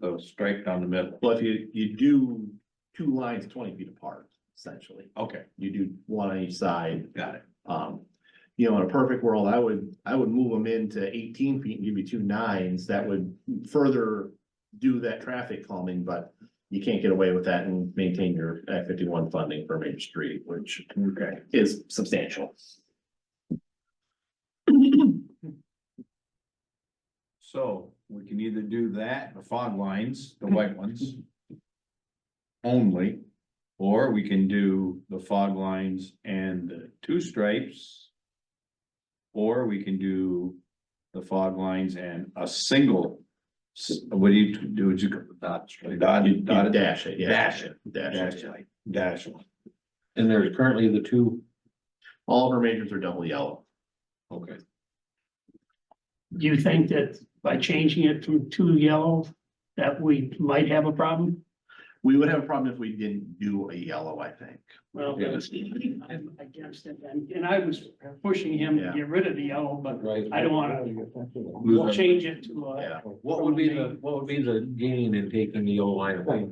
was straight down the middle. Well, if you, you do two lines twenty feet apart, essentially, Okay, you do one on each side. got it. Um, you know, in a perfect world, I would, I would move them into eighteen feet and give you two nines, that would further do that traffic calming, but you can't get away with that and maintain your Act fifty-one funding for Main Street, which Okay. is substantial. So we can either do that, the fog lines, the white ones. Only, or we can do the fog lines and the two stripes. Or we can do the fog lines and a single, s- what do you do, would you go dot, dot, You you dot, dash it, yeah. dash it. Dash dash, it. line, dash. line. And there's currently the two, All of our majors are double yellow. Okay. Do you think that by changing it from two yellow, that we might have a problem? We would have a problem if we didn't do a yellow, I think. Well, Yeah. that's- I'm against it, and, and I was pushing him to get rid of the yellow, but right? I don't wanna- What we'll change it to, uh, Yeah. would be the, what would be the gain in taking the old line away?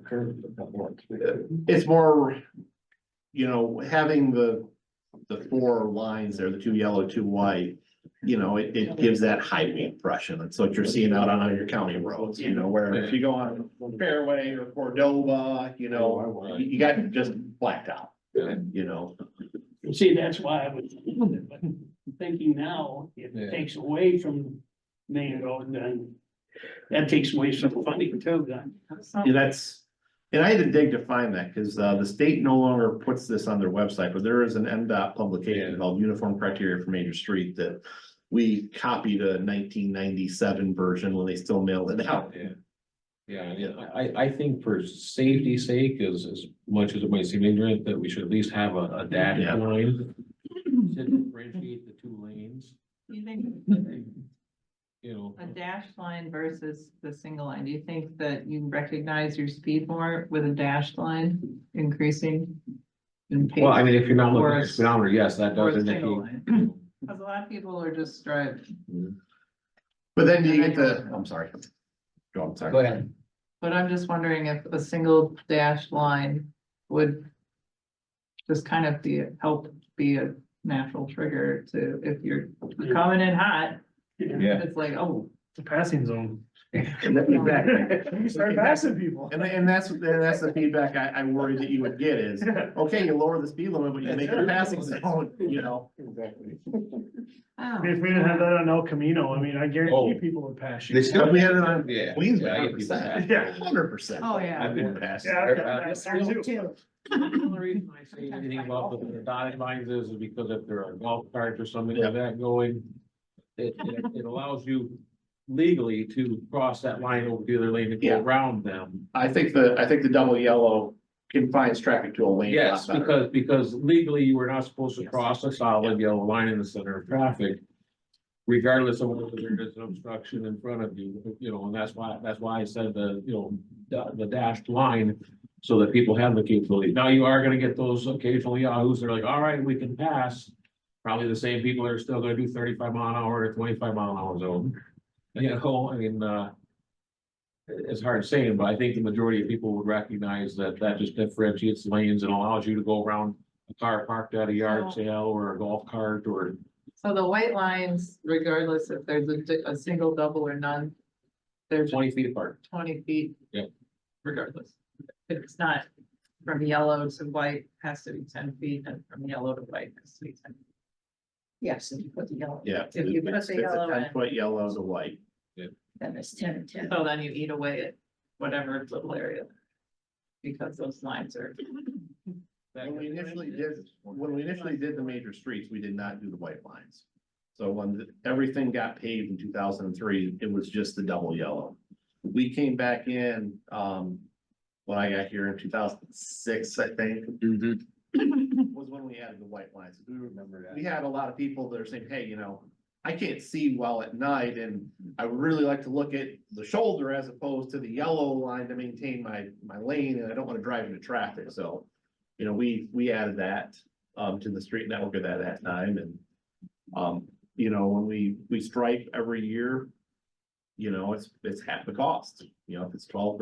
It's more, you know, having the, the four lines there, the two yellow, two white. You know, it, it gives that highway impression. That's what you're seeing out on your county roads, you know, where if you go on Fairway or Cordova, you know, you, you got just blacked out. Oh, Yeah. You know, you see, that's why I was, but thinking now, Yeah. it takes away from Main Road, then that takes away some funding too, then. and that's, and I had to dig to find that, cause, uh, the state no longer puts this on their website, but there is an MDOT publication Yeah. called Uniform Criteria for Major Street that we copied a nineteen ninety-seven version when they still mailed it out. Yeah. Yeah, yeah, I, I think for safety's sake, as, as much as it might seem ignorant, that we should at least have a, a dash Yeah. line. To differentiate the two lanes, You think you know. a dash line versus the single line, do you think that you recognize your speed more with a dashed line increasing? in Well, I pace? mean, if you're not Or looking a at s- speedometer, yes, that or does a single indicate. line? Cause a lot of people are just striped, But then you get the, I'm sorry. Go on, sorry. ahead. but I'm just wondering if a single dashed line would. Just kind of be, help be a natural trigger to, if you're coming in hot, Yeah, it's like, oh, The passing zone. And that- Exactly. Start passing people. And, and that's, and that's the feedback I, I worried that you would get is, okay, you lower the speed limit, but you make it a passing zone, you know? oh. If we didn't have that on El Camino, I mean, I Oh. guarantee people would pass you. They still- If we had it on Yeah. Queensway, Yeah, I hundred get people percent. that. Hundred percent. Oh, yeah. I've been past. Yeah, I've got that there too. The only reason I say anything about the- the dotted lines is because if there are golf carts or something like that going, it, it, it allows you legally to cross that line over the other lane and Yeah. go around them. I think the, I think the double yellow confines traffic to a lane. a lot Yes, better. because, because legally you were not supposed to Yes. cross a solid yellow line in the center of traffic. Regardless of whether there is an obstruction in front of you, you know, and that's why, that's why I said the, you know, da- the dashed line. So that people have the capability. Now you are gonna get those occasional yahoos, they're like, all right, we can pass. Probably the same people are still gonna do thirty-five mile an hour to twenty-five mile an hour zone. You know, I mean, uh. it- It's hard saying, but I think the majority of people would recognize that that just differentiates lanes and allows you to go around. A car parked at a yard sale or a golf cart or So the white lines, regardless if there's a, di- a single, double or none, they're just twenty feet apart. twenty feet. Yep. Regardless. If it's not from yellow to white, has to be ten feet and from yellow to white has to be ten. feet. Yes, if you put the yellow. Yeah. If you put It's- the it's a yellow in. Ten foot yellow to white. Then it's ten and ten. So then you eat away at whatever little area. Because those lines are. When we initially did, when we initially did the major streets, we did not do the white lines. So when the- everything got paved in two thousand and three, it was just the double yellow. We came back in, um, when I got here in two thousand and six, I think, was when we added the white lines. We were remember that. we had a lot of people that are saying, hey, you know, I can't see well at night and I would really like to look at the shoulder as opposed to the yellow line to maintain my, my lane and I don't want to drive into traffic, so. You know, we, we added that, um, to the street network at that, that time and, um, you know, when we, we stripe every year. You know, it's, it's half the cost, you know, if it's twelve